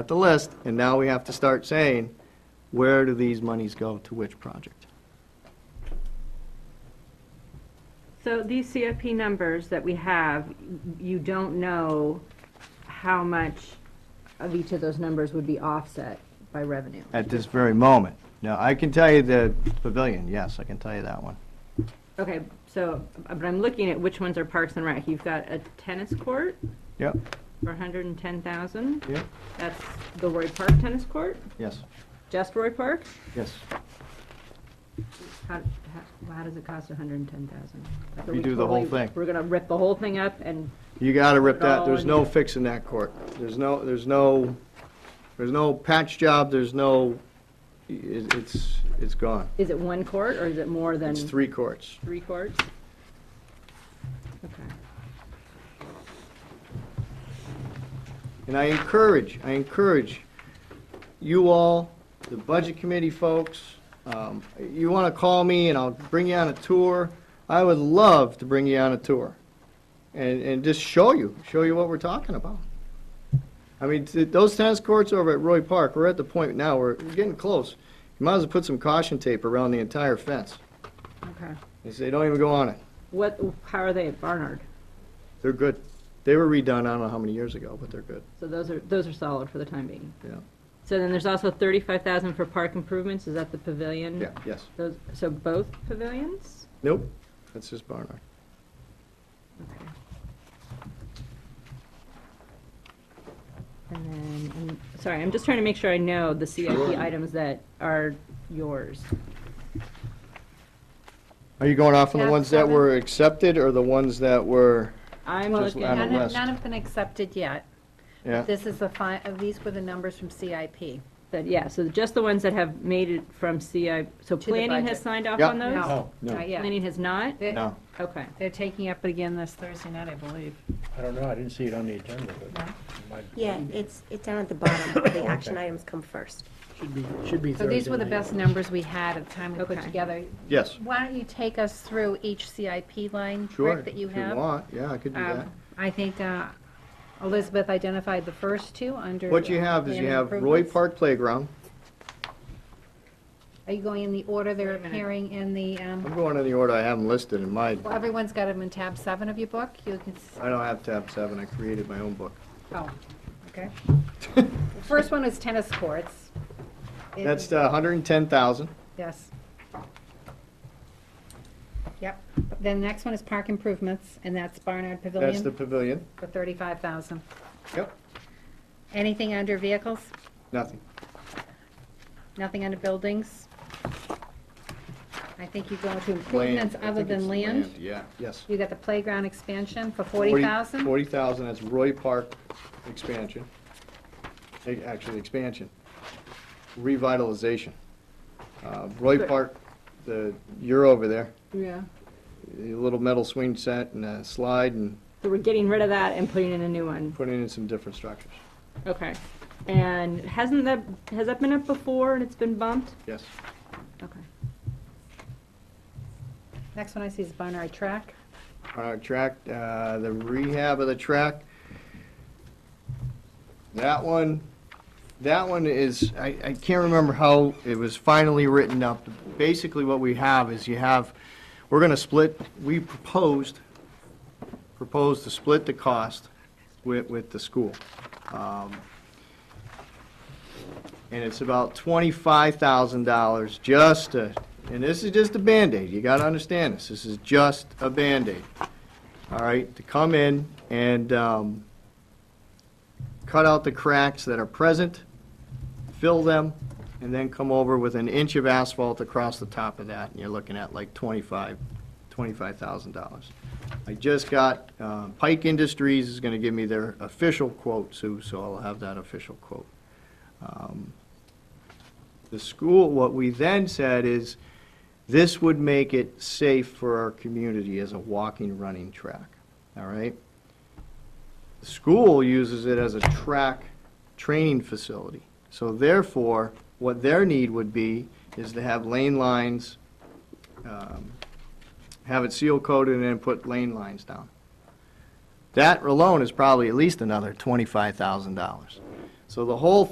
at the list, and now we have to start saying, where do these monies go to which project? So these CFP numbers that we have, you don't know how much of each of those numbers would be offset by revenue. At this very moment. Now, I can tell you the pavilion, yes, I can tell you that one. Okay, so, uh, but I'm looking at which ones are Parks and Rec. You've got a tennis court Yep, for hundred and ten thousand. yep, That's the Roy Park tennis court, yes, just Roy Park. yes. How, how, how does it cost hundred and ten thousand? You do the whole thing. We're gonna rip the whole thing up and, You gotta rip Put it that, all there's in no there. fixing that court. There's no, there's no, there's no patch job, there's no, it- it's, it's gone. is it one court or is it more than? It's three courts. Three courts? Okay. And I encourage, I encourage you all, the Budget Committee folks, um, you want to call me and I'll bring you on a tour. I would love to bring you on a tour and, and just show you, show you what we're talking about. I mean, th- those tennis courts over at Roy Park, we're at the point now, where we're getting close. You might as well put some caution tape around the entire fence. Okay. They say, don't even go on it. What, how are they at Barnard? They're good. They were redone, I don't know how many years ago, but they're good, So those are, those are solid for the time being. yeah. So then there's also thirty-five thousand for park improvements, is that the pavilion? Yeah, yes. Those, so both pavilions? Nope, that's just Barnard. Okay. And then, I'm- sorry, I'm just trying to make sure I know the CIP items that are yours. Are you going off on the Tab ones that seven. were accepted or the ones that were, I'm Just looking. on the None have, list. none have been accepted yet. yeah? This is the fi, uh, these were the numbers from CIP. But yeah, so just the ones that have made it from CI, so the planning has budget. signed off Yeah. on those? No, no. not yet. Planning has not? They're- Oh, No, Okay. They're taking up again this Thursday night, I believe. I don't know, I didn't see it on the agenda, but No? it might, Yeah, it's, it's down at the bottom, the action items come first. should be, should be So these were the Thursday night. best numbers we had at the time we put Okay. together. yes. Why don't you take us through each CIP line, Sure, Rick, that if you you have? want, yeah, I could do Um, that. I think uh, Elizabeth identified the first two under. What you uh, have is you land have Roy improvements. Park Playground. Are you going in the order they're appearing in the, I'm um, going in the order I have them listed in my, well, everyone's got them in tab seven of your book? You can, s- I don't have tab seven, I created my own book. oh, okay. The First one is tennis courts. It- That's the hundred and ten thousand, Yes. Yep. Then the next one is park improvements, and that's Barnard that's the Pavilion pavilion. for thirty-five thousand. Yep, Anything under vehicles? nothing. Nothing under buildings? I think you go into improvements Land, I other think it's than land. Yeah, yes. You got the playground expansion for forty thousand? Forty thousand, that's Roy Park expansion. A- Actually, expansion, revitalization. Uh, Roy But- Park, the, you're over there, Yeah. a little metal swing set and a slide and So we're getting rid of that and putting in a new one. putting in some different structures. Okay. And hasn't that, has that been up before and it's been bumped? Yes, Okay. Next one I see is Barnard Track. on our track, uh, the rehab of the track. That one, that one is, I, I can't remember how it was finally written up. Basically, what we have is you have, we're gonna split, we proposed, proposed to split the cost with, with the school. Um, And it's about twenty-five thousand dollars just to, and this is just a Band-Aid, you gotta understand this, this is just a Band-Aid. All right, to come in and, um, cut out the cracks that are present, fill them, and then come over with an inch of asphalt across the top of that, and you're looking at like twenty-five, twenty-five thousand dollars. I just got, uh, Pike Industries is gonna give me their official quote, Sue, so I'll have that official quote. Um, The school, what we then said is, this would make it safe for our community as a walking, running track, all right? The school uses it as a track training facility. So therefore, what their need would be is to have lane lines, um, have it seal coated and then put lane lines down. That alone is probably at least another twenty-five thousand dollars. So the whole